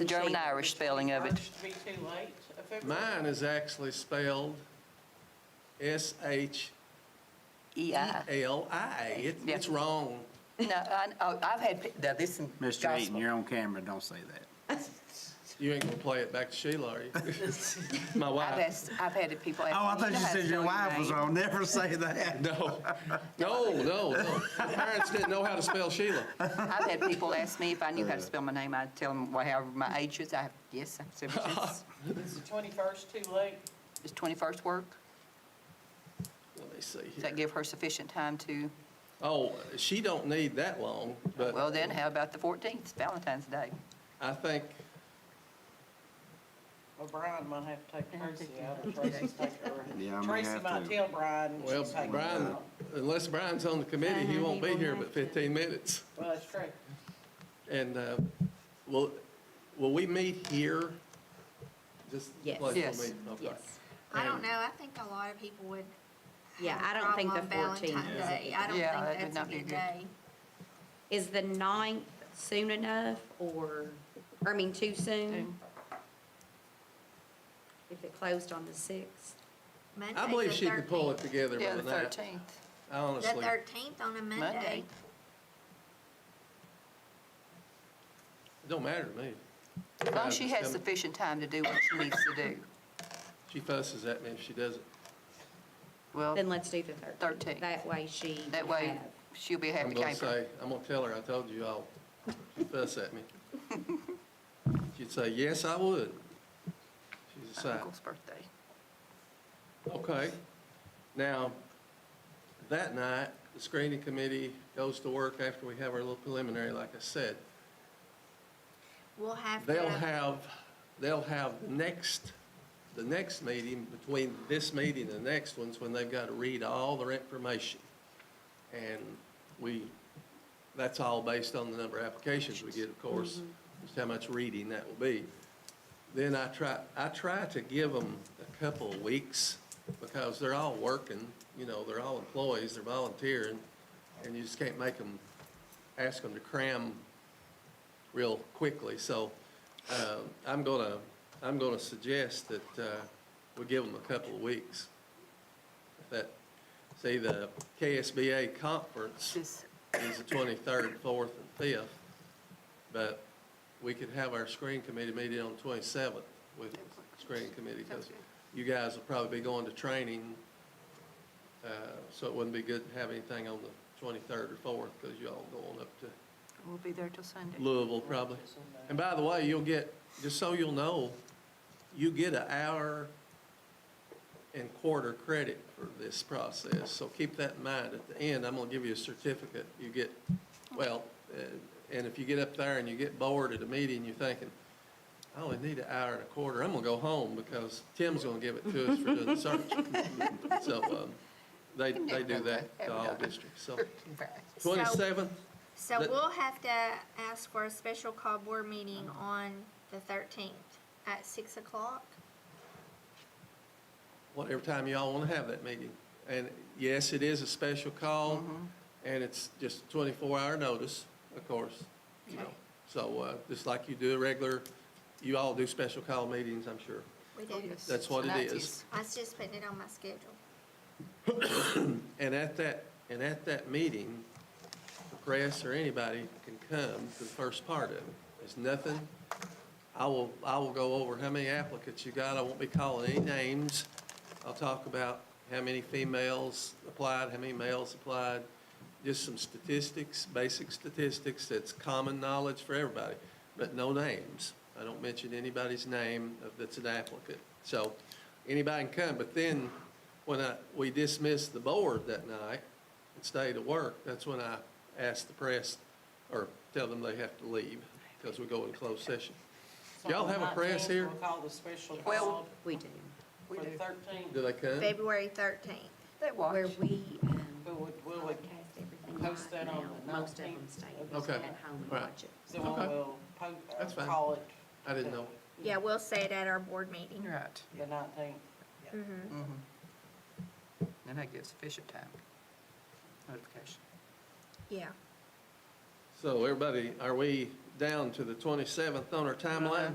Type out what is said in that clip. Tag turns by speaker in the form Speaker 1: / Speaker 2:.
Speaker 1: The German-Irish spelling of it.
Speaker 2: Should be too late, a February.
Speaker 3: Mine is actually spelled S-H-E-L-I.
Speaker 1: EI.
Speaker 3: It-
Speaker 1: Yeah.
Speaker 3: It's wrong.
Speaker 1: No, I, oh, I've had, pe- now this is
Speaker 4: Mr. Eaton,
Speaker 1: gospel.
Speaker 4: you're on camera, don't say that.
Speaker 3: You ain't gonna play it back to Sheila, are you? My
Speaker 1: I've
Speaker 3: wife.
Speaker 1: asked, I've had people ask.
Speaker 4: Oh, I
Speaker 1: me,
Speaker 4: thought
Speaker 1: know
Speaker 4: you
Speaker 1: how to
Speaker 4: said your
Speaker 1: spell
Speaker 4: wife was
Speaker 1: name?
Speaker 4: on, never say that.
Speaker 3: No, no, no, no. My parents didn't know how to spell Sheila.
Speaker 1: I've had people ask me if I knew how
Speaker 4: Uh.
Speaker 1: to spell my name. I'd tell them however my age is. I, yes, I've said, yes.
Speaker 2: Is the 21st too late?
Speaker 1: Does 21st work?
Speaker 3: Let me see
Speaker 1: Does that
Speaker 3: here.
Speaker 1: give her sufficient time to,
Speaker 3: Oh, she don't need that long, but.
Speaker 1: well then, how about the 14th, It's Valentine's Day?
Speaker 3: I think,
Speaker 2: Well, Brian might have to take Tracy out, or
Speaker 1: Yeah.
Speaker 2: Tracy take her.
Speaker 4: Yeah, I may
Speaker 2: Tracy
Speaker 4: have
Speaker 2: might
Speaker 4: to.
Speaker 2: tell Brian, and she'll
Speaker 3: well,
Speaker 2: take her
Speaker 3: Brian,
Speaker 2: out.
Speaker 3: unless Brian's on the committee, he won't be here but 15 minutes.
Speaker 2: Well, that's true.
Speaker 3: And, uh, will, will we meet here? Just the
Speaker 5: Yes.
Speaker 3: place
Speaker 1: Yes.
Speaker 3: we'll meet? Okay.
Speaker 5: Yes.
Speaker 6: I don't
Speaker 3: And-
Speaker 6: know, I think a lot of people would. have
Speaker 5: Yeah,
Speaker 6: a
Speaker 5: I don't think the
Speaker 6: problem on
Speaker 5: 14th is a
Speaker 6: Valentine's Day, I
Speaker 1: Yeah, that
Speaker 6: don't
Speaker 1: would not
Speaker 6: think that's
Speaker 1: be
Speaker 6: a good
Speaker 1: good.
Speaker 6: day.
Speaker 5: Is the ninth soon enough or, or I mean, too soon? If it closed on the sixth?
Speaker 3: I believe she can pull it together
Speaker 1: Yeah,
Speaker 3: by
Speaker 1: the
Speaker 3: that.
Speaker 1: 13th.
Speaker 3: I
Speaker 6: The
Speaker 3: honestly,
Speaker 6: 13th on a Monday.
Speaker 1: Monday.
Speaker 3: it don't matter to me.
Speaker 1: As long as she has
Speaker 3: Just come-
Speaker 1: sufficient time to do what she needs to do.
Speaker 3: She fusses at me if she doesn't.
Speaker 5: Then
Speaker 1: Well,
Speaker 5: let's do the
Speaker 1: 13th.
Speaker 5: thirteenth. That way she.
Speaker 1: Oh. that way, she'll be a
Speaker 3: I'm
Speaker 1: happy
Speaker 3: gonna
Speaker 1: camper.
Speaker 3: say, I'm gonna tell her, I told you all, she fuss at me. She'd say, yes, I would. She's a
Speaker 1: My
Speaker 3: side.
Speaker 1: Uncle's birthday.
Speaker 3: Okay. Now, that night, the screening committee goes to work after we have our little preliminary, like I said.
Speaker 6: We'll have to.
Speaker 3: They'll have, they'll have the next, the next meeting, between this meeting and the next one's when they've got to read all their information. And we, that's all based on the number of applications we get, of course,
Speaker 6: Mm-hmm.
Speaker 3: just how much reading that will be. Then I try, I try to give them a couple of weeks because they're all working, you know, they're all employees, they're volunteering, and you just can't make them, ask them to cram real quickly. So uh, I'm going to, I'm going to suggest that uh, we give them a couple of weeks. If That, see, the KSBA conference is
Speaker 1: Just,
Speaker 3: the 23rd, 4th, and 5th, but we could have our screen committee meeting on 27th with screening committee, because you guys will probably be going to training, uh, so it wouldn't be good to have anything on the 23rd or 4th, because you all going up to
Speaker 1: we'll be there till Sunday.
Speaker 3: Louisville, probably. And by the way, you'll get, just so you'll know, you get an hour and quarter credit for this process, so keep that in mind. At the end, I'm gonna give you a certificate. You get, well, uh, and if you get up there and you get bored at a meeting, you're thinking, I only need an hour and a quarter, I'm gonna go home because Tim's gonna give it to us for doing the search. So, um, they, they do that to all districts, so.
Speaker 6: So-
Speaker 3: Twenty-seventh,
Speaker 6: So
Speaker 3: Let-
Speaker 6: we'll have to ask for a special call board meeting on the 13th at 6 o'clock.
Speaker 3: whatever time y'all want to have that meeting. And yes, it is a special call, and it's just 24-hour notice, of course, you know. So uh, just like you do a regular, you all do special call meetings, I'm sure.
Speaker 6: We
Speaker 1: Oh,
Speaker 6: do.
Speaker 1: yes.
Speaker 3: That's what it
Speaker 1: Tonight
Speaker 3: is.
Speaker 6: I was just putting it on my schedule.
Speaker 3: And at that, and at that meeting, the press or anybody can come to the first part of it. There's nothing, I will, I will go over how many applicants you got, I won't be calling any names. I'll talk about how many females applied, how many males applied, just some statistics, basic statistics that's common knowledge for everybody, but no names. I don't mention anybody's name of- that's an applicant. So anybody can come, but then when I, we dismissed the board that night and stayed at work, that's when I asked the press, or tell them they have to leave, because we go in closed session.
Speaker 2: So
Speaker 3: Y'all have a
Speaker 2: on the
Speaker 3: press
Speaker 2: 19th,
Speaker 3: here?
Speaker 2: We'll call the special
Speaker 1: Well-
Speaker 2: call
Speaker 5: We do.
Speaker 2: for the 13th.
Speaker 3: Do they come?
Speaker 6: February 13th.
Speaker 1: They
Speaker 5: Where
Speaker 1: watch.
Speaker 5: we, um,
Speaker 2: Will we, will we,
Speaker 5: podcast everything
Speaker 2: Post
Speaker 5: live
Speaker 2: that on
Speaker 5: now.
Speaker 2: the
Speaker 5: Most of them
Speaker 2: 19th
Speaker 5: stay
Speaker 2: of
Speaker 3: December.
Speaker 5: at home and
Speaker 3: Right.
Speaker 5: watch it.
Speaker 2: so we'll,
Speaker 3: Okay.
Speaker 2: we'll po- uh,
Speaker 3: That's fine.
Speaker 2: call it.
Speaker 3: I didn't know.
Speaker 6: Yeah, we'll say it at our board meeting.
Speaker 1: Right.
Speaker 2: The 19th.
Speaker 1: And that gives sufficient time. Notification.
Speaker 6: Yeah.
Speaker 3: So everybody, are we down to the 27th on our timeline?